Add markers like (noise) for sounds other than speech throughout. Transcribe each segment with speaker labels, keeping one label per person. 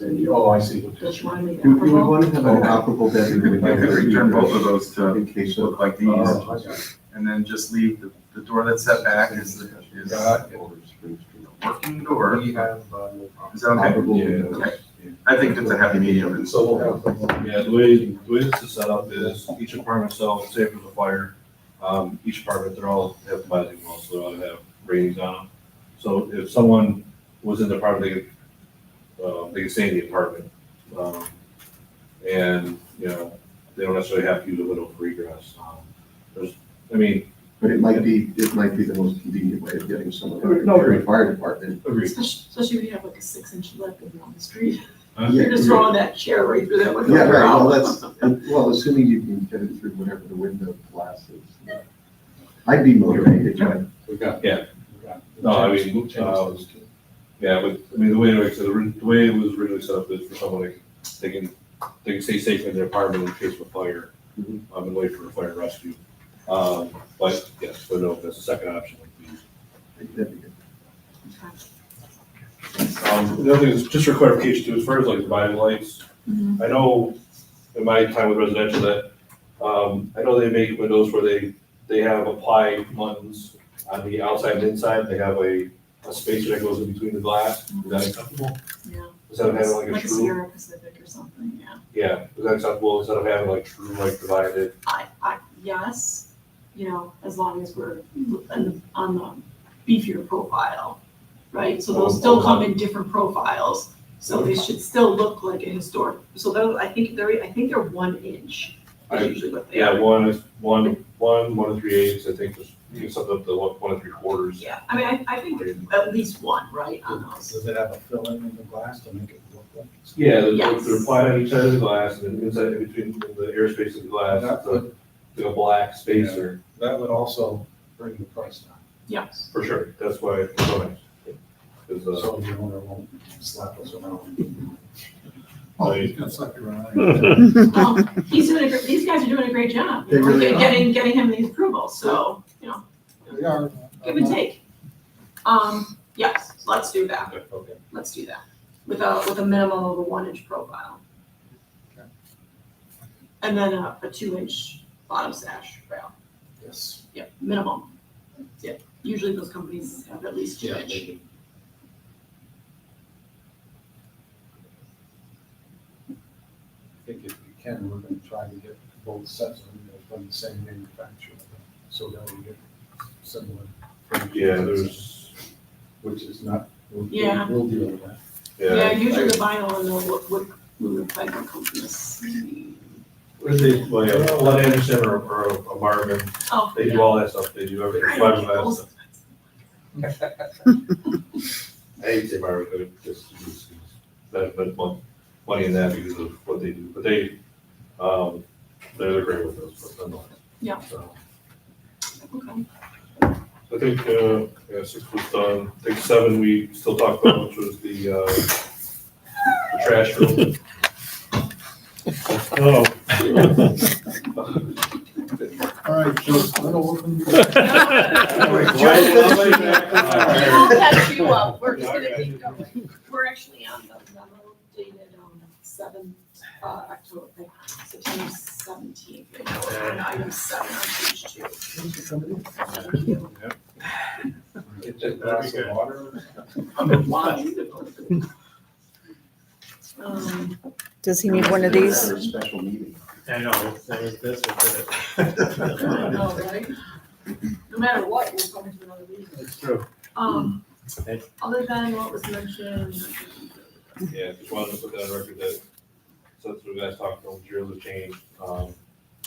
Speaker 1: and you
Speaker 2: Oh, I see.
Speaker 1: just want me
Speaker 3: You would
Speaker 1: to.
Speaker 3: want to have an operable
Speaker 4: You
Speaker 3: bedroom.
Speaker 4: could return both of those to
Speaker 3: In case of.
Speaker 4: look like these,
Speaker 2: Oh, I got
Speaker 4: and then just leave the, the door that's set back is, the- is a
Speaker 2: it.
Speaker 4: working
Speaker 2: Got it.
Speaker 4: door.
Speaker 2: We have, uh, no problem.
Speaker 4: Is that okay?
Speaker 3: operable
Speaker 5: Yeah.
Speaker 3: windows.
Speaker 4: I think that's a happy
Speaker 3: (laughs)
Speaker 4: medium.
Speaker 2: So we'll have.
Speaker 5: Yeah, the way, the way this is set up is each apartment cell, say if there's a fire, um, each apartment, they're all have lighting walls, so they all have ratings on them. So if someone was in the apartment, they could, uh, they could stay in the apartment. Um, and, you know, they don't necessarily have to use a window for egress. Um, There's, I mean,
Speaker 3: But it might be, it might be the most convenient way of getting someone.
Speaker 5: No,
Speaker 3: Your fire department.
Speaker 5: agreed.
Speaker 1: Especially especially if you have like a six inch lip and you're on the street.
Speaker 5: Huh?
Speaker 3: Yeah,
Speaker 1: You're just
Speaker 3: yeah.
Speaker 1: throwing that chair right through that window.
Speaker 3: Yeah, right, well, that's, well, assuming you can get it through whatever the window glass is. I'd be motivated, but
Speaker 2: We got.
Speaker 5: Yeah.
Speaker 2: We got-
Speaker 5: No, I mean, uh, Yeah, but, I mean, the way, like, I said, the ri- the way it was originally set up is for someone, like, they can, they can stay safe in their apartment in case of a fire. um,
Speaker 3: Mhm.
Speaker 2: Mm-hmm.
Speaker 5: I've been waiting for a fire rescue. Um, but, yes, but no, that's the second option.
Speaker 3: I think that'd be
Speaker 6: (laughs)
Speaker 3: good.
Speaker 5: Um, the other thing is, just for clarification too, as far as like dividing lights,
Speaker 1: Mhm.
Speaker 5: I know in my time with residential that, um, I know they make windows where they, they have applied buttons on the outside and inside, they have a, a spacer that goes in between the glass. Is that acceptable?
Speaker 1: Yeah.
Speaker 5: Instead of having like a
Speaker 1: Like
Speaker 5: screw?
Speaker 1: Sierra Pacific or something, yeah.
Speaker 5: Yeah, is that acceptable instead of having like true like divided?
Speaker 1: I, I, yes, you know, as long as we're on the, on the beefier profile, right? So they'll still come in different profiles, so they should still look like a historic, so those, I think they're, I think they're one inch.
Speaker 5: I-
Speaker 1: is usually what they are.
Speaker 5: Yeah, one is one, one, one and three eighths, I think, just, you can set up the one, one and three quarters.
Speaker 1: Yeah, I mean, I, I think there's at least one, right, on those.
Speaker 2: Does it have a fill-in in the glass to make it look like? it's-
Speaker 5: Yeah, they're,
Speaker 1: Yes.
Speaker 5: they're applied on each side of the glass and then inside, in between the airspace of the glass,
Speaker 2: That
Speaker 5: it's a,
Speaker 2: would,
Speaker 5: like a black spacer,
Speaker 2: that would also bring the price down.
Speaker 1: Yes.
Speaker 5: for sure, that's why. it's so nice. 'Cause, uh,
Speaker 2: So the owner won't slap us around.
Speaker 5: Oh,
Speaker 2: he's
Speaker 5: he's
Speaker 2: gonna slap you around.
Speaker 1: Well, He's doing a, gr- these guys are doing a great job, you
Speaker 3: They
Speaker 1: know,
Speaker 3: really
Speaker 1: get-
Speaker 3: are.
Speaker 1: getting, getting him these approvals, so, you know,
Speaker 2: They are.
Speaker 1: give and take. Um, yes, let's do that.
Speaker 2: Okay.
Speaker 1: Let's do that, with a, with a minimum of a one inch profile.
Speaker 2: Okay.
Speaker 1: And then a, a two inch bottom sash rail,
Speaker 2: (laughs) Yes.
Speaker 1: yep, minimum. Yep, usually those companies have at least two
Speaker 2: Yeah,
Speaker 1: inch.
Speaker 2: maybe. I think if you can, we're gonna try to get both sets of them from the same manufacturer, so that we get similar.
Speaker 5: yeah, there's,
Speaker 2: Which is not. we'll- we'll-
Speaker 1: Yeah.
Speaker 2: We'll deal with that.
Speaker 1: Yeah,
Speaker 5: yeah.
Speaker 1: usually the vinyl and the wood, wood, wood fiber companies.
Speaker 5: Where's the, well, yeah, Lund Anderson or, or a Marvin,
Speaker 1: Oh,
Speaker 5: they do all that stuff, they do everything,
Speaker 1: Right.
Speaker 5: fiberglass stuff. I hate to say Marvin, but it just, it's- it's- that, but mon- money in that because of what they do, but they, um, they're great with those, but nonetheless.
Speaker 1: Yeah.
Speaker 5: So,
Speaker 1: Okay.
Speaker 5: I think, uh, yeah, six was done, I think seven we still talked about, which was the, uh, the trash room. (laughs)
Speaker 7: Oh,
Speaker 2: All right, Joe, I don't want (laughs) to.
Speaker 1: I'll catch you up, we're just gonna keep going. We're actually on the memo dated on seven, uh, October, like, September seventeenth. We're on item seven on page two. Thank you.
Speaker 2: Get that glass of water.
Speaker 1: Um,
Speaker 6: Does he need one of these?
Speaker 3: Or a Special meeting.
Speaker 7: I know, it's- it was this, was it?
Speaker 1: I don't know, right? No matter what, we're going to another meeting.
Speaker 7: It's true.
Speaker 1: Um,
Speaker 7: Okay.
Speaker 1: other than what was mentioned.
Speaker 5: Yeah, just wanted to put that on record that, since we guys talked, no materials have changed, um,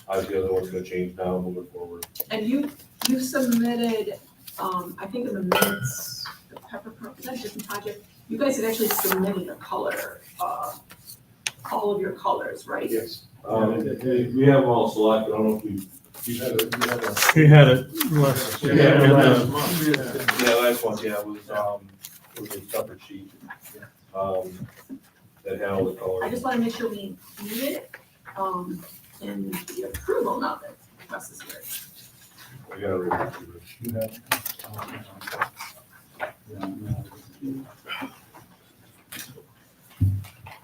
Speaker 5: obviously the other one's gonna change now moving forward.
Speaker 1: And you, you submitted, um, I think in the minutes, the pepper, pro- is that a different project? You guys had actually submitted a color, uh, all of your colors, right?
Speaker 2: Yes.
Speaker 5: Um, we have them all selected, I don't know if we,
Speaker 2: You have a, you have a.
Speaker 7: He had it last.
Speaker 2: Yeah,
Speaker 5: yeah, last one, yeah, was, um, was a separate sheet, um, that had all the
Speaker 1: I
Speaker 5: colors.
Speaker 1: just wanna make sure we need it, um, in the approval, not that Wes is here.
Speaker 5: We gotta read it.
Speaker 2: You have. um, yeah, no.